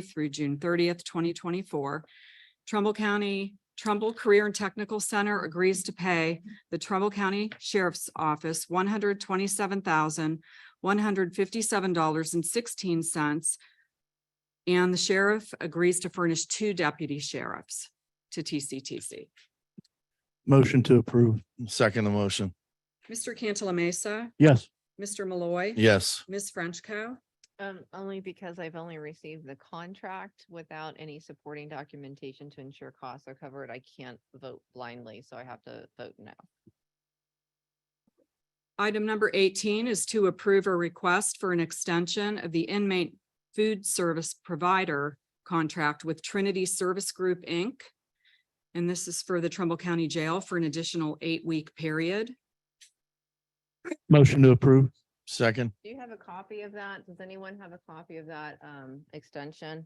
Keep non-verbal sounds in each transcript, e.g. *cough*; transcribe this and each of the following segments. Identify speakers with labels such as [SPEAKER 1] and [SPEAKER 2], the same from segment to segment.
[SPEAKER 1] through June thirtieth, twenty twenty-four. Trumbull County Trumbull Career and Technical Center agrees to pay the Trumbull County Sheriff's Office one hundred twenty-seven thousand one hundred fifty-seven dollars and sixteen cents. And the sheriff agrees to furnish two deputy sheriffs to TCTC.
[SPEAKER 2] Motion to approve.
[SPEAKER 3] Second the motion.
[SPEAKER 1] Mr. Cantala Mesa,
[SPEAKER 2] Yes.
[SPEAKER 1] Mr. Malloy.
[SPEAKER 3] Yes.
[SPEAKER 1] Ms. Frenchco.
[SPEAKER 4] Um, only because I've only received the contract without any supporting documentation to ensure costs are covered. I can't vote blindly, so I have to vote no.
[SPEAKER 1] Item number eighteen is to approve a request for an extension of the inmate food service provider contract with Trinity Service Group, Inc. And this is for the Trumbull County Jail for an additional eight-week period.
[SPEAKER 2] Motion to approve.
[SPEAKER 3] Second.
[SPEAKER 4] Do you have a copy of that? Does anyone have a copy of that, um, extension?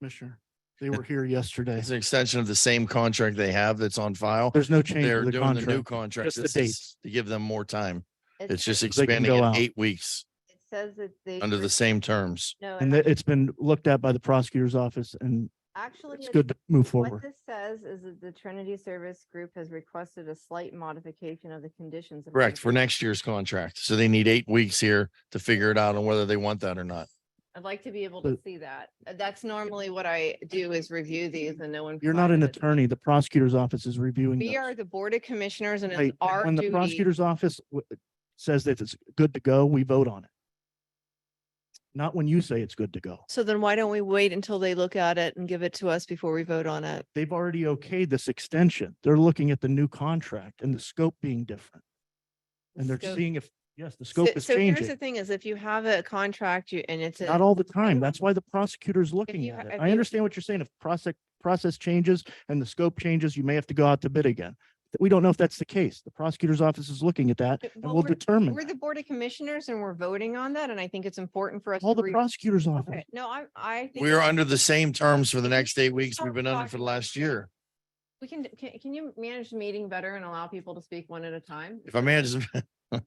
[SPEAKER 2] Commissioner, they were here yesterday.
[SPEAKER 3] It's an extension of the same contract they have that's on file.
[SPEAKER 2] There's no change
[SPEAKER 3] They're
[SPEAKER 2] to the
[SPEAKER 3] doing the new
[SPEAKER 2] contract.
[SPEAKER 3] contract.
[SPEAKER 2] just the
[SPEAKER 3] This is to give them more time.
[SPEAKER 4] It
[SPEAKER 3] It's just
[SPEAKER 4] says-
[SPEAKER 2] They can
[SPEAKER 3] expanding
[SPEAKER 2] go
[SPEAKER 3] it
[SPEAKER 2] out.
[SPEAKER 3] eight weeks
[SPEAKER 4] It says that they.
[SPEAKER 3] under the
[SPEAKER 4] re-
[SPEAKER 3] same terms.
[SPEAKER 4] No, it
[SPEAKER 2] And that it's been looked at by the prosecutor's office and
[SPEAKER 4] actually.
[SPEAKER 2] it's
[SPEAKER 4] it-
[SPEAKER 2] good to move
[SPEAKER 4] What
[SPEAKER 2] forward.
[SPEAKER 4] this says is that the Trinity Service Group has requested a slight modification of the conditions. of
[SPEAKER 3] Correct, for
[SPEAKER 4] employment.
[SPEAKER 3] next year's contract. So they need eight weeks here to figure it out on whether they want that or not.
[SPEAKER 4] I'd like to be able to
[SPEAKER 2] But-
[SPEAKER 4] see that. Uh, That's normally what I do is review these and no one.
[SPEAKER 2] You're not an
[SPEAKER 4] provided it.
[SPEAKER 2] attorney. The prosecutor's office is reviewing.
[SPEAKER 4] We
[SPEAKER 2] those.
[SPEAKER 4] are the E. Board of Commissioners and
[SPEAKER 2] Right,
[SPEAKER 4] it's
[SPEAKER 2] and
[SPEAKER 4] our
[SPEAKER 2] When the
[SPEAKER 4] duty.
[SPEAKER 2] prosecutor's office w- says that it's good to go, we vote on it. Not when you say it's good to go.
[SPEAKER 5] So then why don't we wait until they look at it and give it to us before we vote on it?
[SPEAKER 2] They've already okayed this extension. They're looking at the new contract and the scope being different. And they're
[SPEAKER 4] Scope.
[SPEAKER 2] seeing if, yes, the
[SPEAKER 5] So
[SPEAKER 2] scope is
[SPEAKER 5] so here's the
[SPEAKER 2] changing.
[SPEAKER 5] thing is if you have a contract you and it's. a-
[SPEAKER 2] Not all the time. That's why the prosecutor's looking
[SPEAKER 4] you ha-
[SPEAKER 2] at it.
[SPEAKER 4] if
[SPEAKER 2] I
[SPEAKER 4] you-
[SPEAKER 2] understand what you're saying. If process, process changes and the scope changes, you may have to go out to bid again. But We don't know if that's the case. The prosecutor's office is looking at that
[SPEAKER 4] But-
[SPEAKER 2] and
[SPEAKER 4] but
[SPEAKER 2] will
[SPEAKER 4] we're-
[SPEAKER 2] determine.
[SPEAKER 4] We're the
[SPEAKER 2] that.
[SPEAKER 4] Board of Commissioners and we're voting on that and I think it's important for us.
[SPEAKER 2] Call
[SPEAKER 4] to
[SPEAKER 2] the
[SPEAKER 4] re-
[SPEAKER 2] prosecutor's
[SPEAKER 4] Okay,
[SPEAKER 2] office.
[SPEAKER 4] No, I, I. think
[SPEAKER 3] We are
[SPEAKER 4] it's-
[SPEAKER 3] under the same terms for the next eight weeks we've been under for the last year.
[SPEAKER 4] We can, can, can you manage the meeting better and allow people to speak one at a time?
[SPEAKER 3] If I manage, *laughs* there's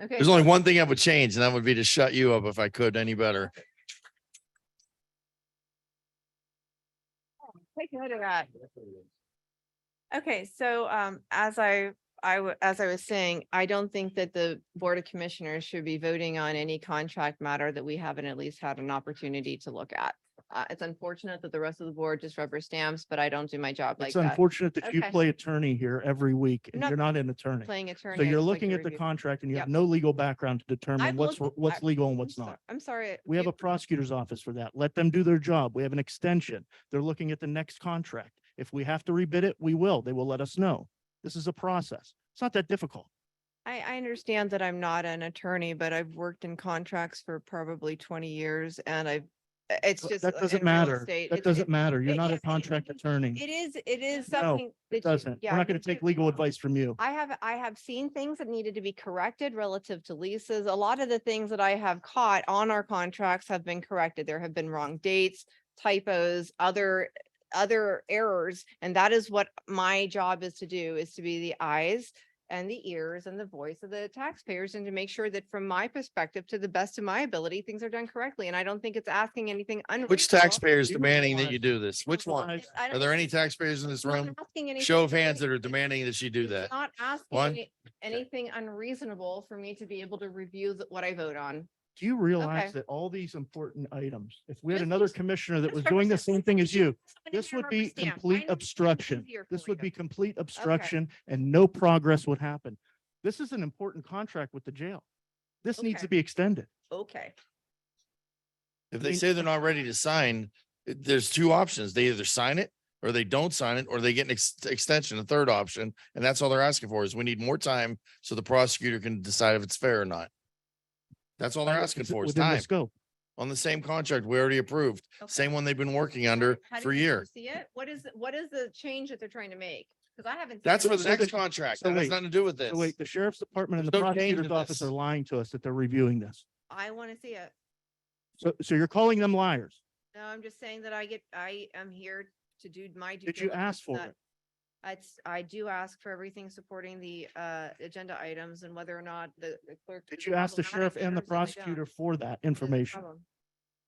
[SPEAKER 4] Okay.
[SPEAKER 3] only one thing I would change and that would be to shut you up if I could any better.
[SPEAKER 4] Take note of that.
[SPEAKER 5] Okay, so um, as I, I, wa- as I was saying, I don't think that the Board of Commissioners should be voting on any contract matter that we haven't at least had an opportunity to look at. Uh, it's unfortunate that the rest of the board just rubber stamps, but I don't do my job like
[SPEAKER 2] It's
[SPEAKER 5] that.
[SPEAKER 2] unfortunate that you
[SPEAKER 4] Okay.
[SPEAKER 2] play attorney here every week and
[SPEAKER 5] not
[SPEAKER 2] you're not an attorney.
[SPEAKER 5] Playing attorney.
[SPEAKER 2] So
[SPEAKER 5] I
[SPEAKER 2] you're
[SPEAKER 5] just like to
[SPEAKER 2] looking at the
[SPEAKER 5] review.
[SPEAKER 2] contract and you have
[SPEAKER 5] Yep.
[SPEAKER 2] no legal background to determine what's,
[SPEAKER 5] looked-
[SPEAKER 2] what's
[SPEAKER 5] I-
[SPEAKER 2] legal and
[SPEAKER 5] I'm
[SPEAKER 2] what's
[SPEAKER 5] sor-
[SPEAKER 2] not.
[SPEAKER 5] I'm sorry.
[SPEAKER 2] We have
[SPEAKER 5] you-
[SPEAKER 2] a prosecutor's office for that. Let them do their job. We have an extension. They're looking at the next contract. If we have to rebid it, we will. They will let us know. This is a process. It's not that difficult.
[SPEAKER 5] I, I understand that I'm not an attorney, but I've worked in contracts for probably twenty years and I've, uh, it's
[SPEAKER 2] Th-
[SPEAKER 5] just.
[SPEAKER 2] That
[SPEAKER 5] uh,
[SPEAKER 2] doesn't
[SPEAKER 5] in real
[SPEAKER 2] matter.
[SPEAKER 5] estate,
[SPEAKER 2] That
[SPEAKER 5] it's-
[SPEAKER 2] doesn't
[SPEAKER 5] it-
[SPEAKER 2] matter. You're
[SPEAKER 5] it-
[SPEAKER 2] not
[SPEAKER 5] yeah,
[SPEAKER 2] a
[SPEAKER 5] it-
[SPEAKER 2] contract attorney.
[SPEAKER 5] It is, it is
[SPEAKER 2] No,
[SPEAKER 5] something. that you-
[SPEAKER 2] It doesn't.
[SPEAKER 5] yeah,
[SPEAKER 2] We're not
[SPEAKER 5] you
[SPEAKER 2] going to
[SPEAKER 5] do-
[SPEAKER 2] take legal advice from you.
[SPEAKER 5] I have, I have seen things that needed to be corrected relative to leases. A lot of the things that I have caught on our contracts have been corrected. There have been wrong dates, typos, other, other errors. And that is what my job is to do, is to be the eyes and the ears and the voice of the taxpayers and to make sure that from my perspective, to the best of my ability, things are done correctly. And I don't think it's asking anything unreasonable.
[SPEAKER 3] Which taxpayer is
[SPEAKER 2] You
[SPEAKER 3] demanding that
[SPEAKER 2] realize-
[SPEAKER 3] you do this? Which one?
[SPEAKER 2] realize-
[SPEAKER 5] I
[SPEAKER 3] Are
[SPEAKER 5] don't-
[SPEAKER 3] there any taxpayers in this
[SPEAKER 5] it's not
[SPEAKER 3] room?
[SPEAKER 5] asking anything
[SPEAKER 3] Show of hands that are
[SPEAKER 5] unreasonable.
[SPEAKER 3] demanding that you do
[SPEAKER 5] It's
[SPEAKER 3] that.
[SPEAKER 5] Not asking
[SPEAKER 3] One.
[SPEAKER 5] any- anything unreasonable for me to be able to review th- what I vote on.
[SPEAKER 2] Do you realize
[SPEAKER 5] Okay.
[SPEAKER 2] that all these important items, if we had
[SPEAKER 5] Just
[SPEAKER 2] another
[SPEAKER 5] use-
[SPEAKER 2] commissioner that
[SPEAKER 5] just
[SPEAKER 2] was doing the
[SPEAKER 5] represent-
[SPEAKER 2] same thing as you,
[SPEAKER 5] Somebody
[SPEAKER 2] this
[SPEAKER 5] here
[SPEAKER 2] would be
[SPEAKER 5] represent- I
[SPEAKER 2] complete
[SPEAKER 5] know it's
[SPEAKER 2] obstruction.
[SPEAKER 5] easier for
[SPEAKER 2] This would
[SPEAKER 5] you.
[SPEAKER 2] be complete obstruction and no progress would happen. This is an important contract with the jail. This needs to
[SPEAKER 5] Okay.
[SPEAKER 2] be extended.
[SPEAKER 5] Okay,
[SPEAKER 2] I
[SPEAKER 3] If they
[SPEAKER 2] mean-
[SPEAKER 3] say they're not ready to sign, it- there's two options. They either sign it or they don't sign it, or they get an ex- extension, a third option. And that's all they're asking for is we need more time so the prosecutor can decide if it's fair or not. That's all they're asking
[SPEAKER 2] Is it
[SPEAKER 3] for is
[SPEAKER 2] within the
[SPEAKER 3] time
[SPEAKER 2] Scope.
[SPEAKER 3] on the same contract we already approved, same one they've been working under
[SPEAKER 5] How do
[SPEAKER 3] for a
[SPEAKER 5] you
[SPEAKER 3] year.
[SPEAKER 5] See it? What is, what is the change that they're trying to make? Because I haven't. seen
[SPEAKER 3] That's
[SPEAKER 5] it.
[SPEAKER 3] for the
[SPEAKER 2] So
[SPEAKER 3] next
[SPEAKER 2] that-
[SPEAKER 3] contract.
[SPEAKER 2] so
[SPEAKER 3] That has
[SPEAKER 2] wait,
[SPEAKER 3] nothing to do with
[SPEAKER 2] So
[SPEAKER 3] this.
[SPEAKER 2] Wait, the sheriff's department and the
[SPEAKER 3] There's no change in
[SPEAKER 2] prosecutor's office
[SPEAKER 3] this.
[SPEAKER 2] are lying to us that they're reviewing this.
[SPEAKER 5] I want to see it.
[SPEAKER 2] So, so you're calling them liars.
[SPEAKER 5] No, I'm just saying that I get, I am here to do my. due
[SPEAKER 2] Did you
[SPEAKER 5] diligence,
[SPEAKER 2] ask for
[SPEAKER 5] not-
[SPEAKER 2] it?
[SPEAKER 5] It's, I do ask for everything supporting the uh agenda items and whether or not the the clerk.
[SPEAKER 2] Did
[SPEAKER 5] is
[SPEAKER 2] you ask the
[SPEAKER 5] problematic
[SPEAKER 2] sheriff and the
[SPEAKER 5] matters, and they don't.
[SPEAKER 2] prosecutor for that
[SPEAKER 5] That's the
[SPEAKER 2] information?
[SPEAKER 5] problem.